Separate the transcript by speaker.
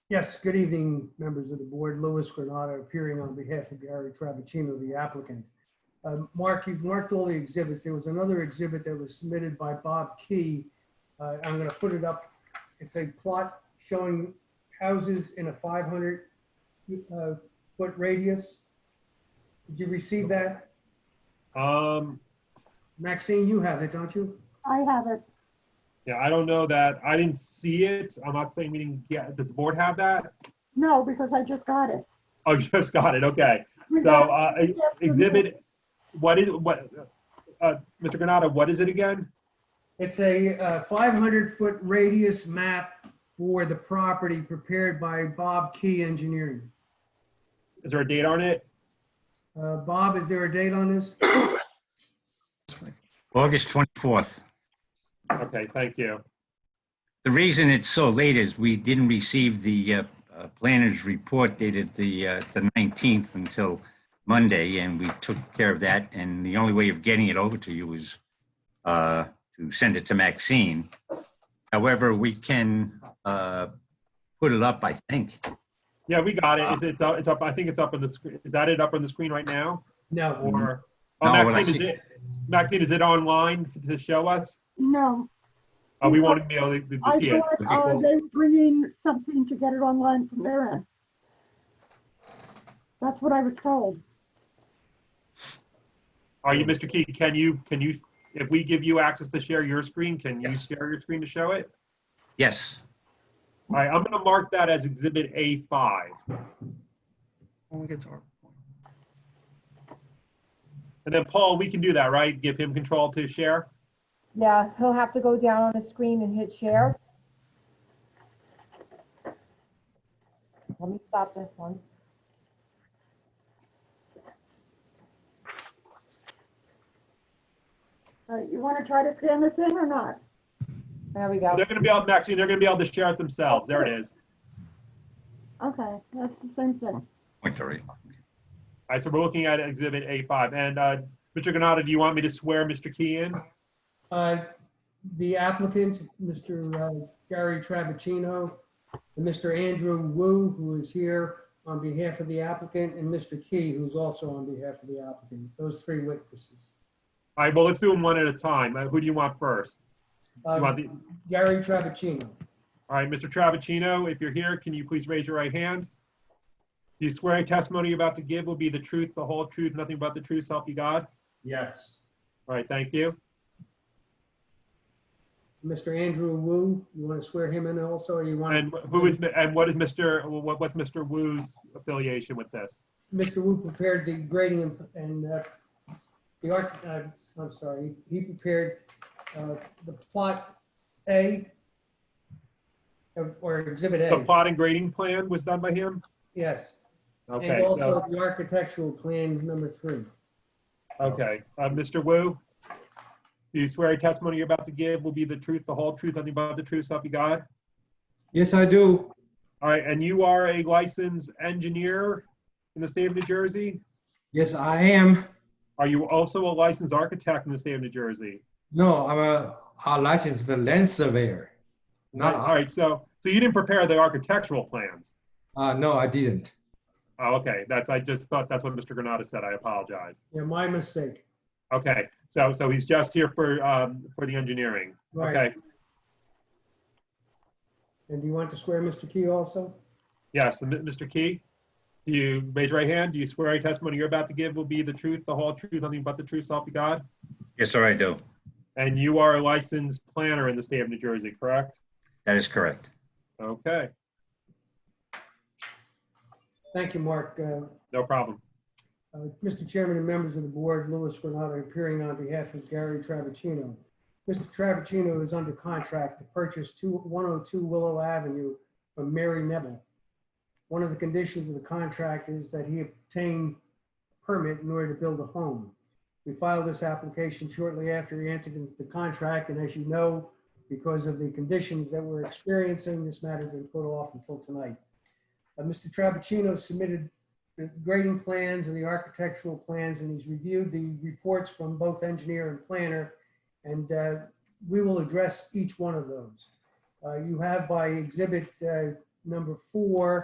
Speaker 1: Yes, good evening, members of the board. Louis Granata appearing on behalf of Gary Travaccino, the applicant. Um, Mark, you've marked all the exhibits. There was another exhibit that was submitted by Bob Key. Uh, I'm going to put it up. It's a plot showing houses in a 500 uh, foot radius. Did you receive that?
Speaker 2: Um,
Speaker 1: Maxine, you have it, don't you?
Speaker 3: I have it.
Speaker 2: yeah, I don't know that. I didn't see it. I'm not saying we didn't get, does the board have that?
Speaker 3: No, because I just got it.
Speaker 2: Oh, you just got it. Okay. So, uh, e- exhibit, what is, what, uh, Mr. Granata, what is it again?
Speaker 1: It's a uh, 500 foot radius map for the property prepared by Bob Key Engineering.
Speaker 2: Is there a date on it?
Speaker 1: Uh, Bob, is there a date on this?
Speaker 4: August 24th.
Speaker 2: Okay, thank you.
Speaker 4: The reason it's so late is we didn't receive the uh, uh, planner's report dated the uh, the 19th until Monday, and we took care of that. And the only way of getting it over to you is uh, to send it to Maxine. However, we can uh, put it up, I think.
Speaker 2: Yeah, we got it. It's, it's up, it's up, I think it's up on the screen. Is that it up on the screen right now?
Speaker 1: No.
Speaker 3: Mm-hmm.
Speaker 2: Or, oh,
Speaker 4: No, when I
Speaker 2: Maxine, is
Speaker 4: see-
Speaker 2: it, Maxine, is it online to show us?
Speaker 3: No,
Speaker 2: Uh, we wanted to be able to to
Speaker 3: I
Speaker 2: see it.
Speaker 3: thought, uh, they were bringing something to get it online from their end. That's what I was told.
Speaker 2: Are you, Mr. Key, can you, can you, if we give you access to share your screen, can you
Speaker 4: Yes.
Speaker 2: share your screen to show it?
Speaker 4: Yes.
Speaker 2: All right, I'm gonna mark that as exhibit A5.
Speaker 5: When we get to our,
Speaker 2: And then Paul, we can do that, right? Give him control to share?
Speaker 6: Yeah, he'll have to go down on the screen and hit share. Let me stop this one.
Speaker 3: All right, Uh, you want to try to scan this in or not?
Speaker 6: There we go.
Speaker 2: They're gonna be able, Maxine, they're gonna be able to share it themselves. There it is.
Speaker 3: Okay, that's the same thing.
Speaker 4: Point already.
Speaker 2: All right, so we're looking at exhibit A5. And, uh, Mr. Ganata, do you want me to swear Mr. Key in?
Speaker 1: Uh, The applicant, Mr. uh, Gary Travaccino, and Mr. Andrew Wu, who is here on behalf of the applicant, and Mr. Key, who's also on behalf of the applicant, those three witnesses.
Speaker 2: All right, well, let's do them one at a time. Uh, Who do you want first? Do you
Speaker 1: Uh,
Speaker 2: want the,
Speaker 1: Gary Travaccino,
Speaker 2: all right, Mr. Travaccino, if you're here, can you please raise your right hand? Do you swear any testimony you're about to give will be the truth, the whole truth, nothing but the truth, so help you God?
Speaker 7: Yes,
Speaker 2: All right, thank you.
Speaker 1: Mr. Andrew Wu, you want to swear him in also, or you want?
Speaker 2: And who is, and what is Mr., what, what's Mr. Wu's affiliation with this?
Speaker 1: Mr. Wu prepared the grading and- and uh, the arch, uh, I'm sorry, he prepared uh, the plot A or- or Exhibit
Speaker 2: The
Speaker 1: A,
Speaker 2: plot and grading plan was done by him?
Speaker 1: yes.
Speaker 2: Okay,
Speaker 1: And
Speaker 2: so,
Speaker 1: also the architectural plan number three.
Speaker 2: okay. Uh, Mr. Wu, do you swear a testimony you're about to give will be the truth, the whole truth, nothing but the truth, so help you God?
Speaker 8: Yes, I do.
Speaker 2: All right, and you are a licensed engineer in the state of New Jersey?
Speaker 8: Yes, I am.
Speaker 2: Are you also a licensed architect in the state of New Jersey?
Speaker 8: No, I'm a, a licensed land surveyor. Not,
Speaker 2: All right, so, so you didn't prepare the architectural plans?
Speaker 8: uh, no, I didn't.
Speaker 2: Oh, okay, that's, I just thought that's what Mr. Granata said. I apologize.
Speaker 1: Yeah, my mistake.
Speaker 2: Okay, so, so he's just here for, um, for the engineering.
Speaker 1: Right.
Speaker 2: Okay,
Speaker 1: And do you want to swear Mr. Key also?
Speaker 2: yes, and M- Mr. Key, do you raise your right hand? Do you swear any testimony you're about to give will be the truth, the whole truth, nothing but the truth, so help you God?
Speaker 4: Yes, sir, I do.
Speaker 2: And you are a licensed planner in the state of New Jersey, correct?
Speaker 4: That is correct.
Speaker 2: Okay,
Speaker 1: Thank you, Mark. Uh,
Speaker 2: no problem.
Speaker 1: Uh, Mr. Chairman and members of the board, Louis Granata appearing on behalf of Gary Travaccino. Mr. Travaccino is under contract to purchase two- 102 Willow Avenue from Mary Neville. One of the conditions of the contract is that he obtain permit in order to build a home. We filed this application shortly after he entered into the contract, and as you know, because of the conditions that we're experiencing, this matter's been put off until tonight. Uh, Mr. Travaccino submitted the grading plans and the architectural plans, and he's reviewed the reports from both engineer and planner. And uh, we will address each one of those. Uh, You have by exhibit uh, number four,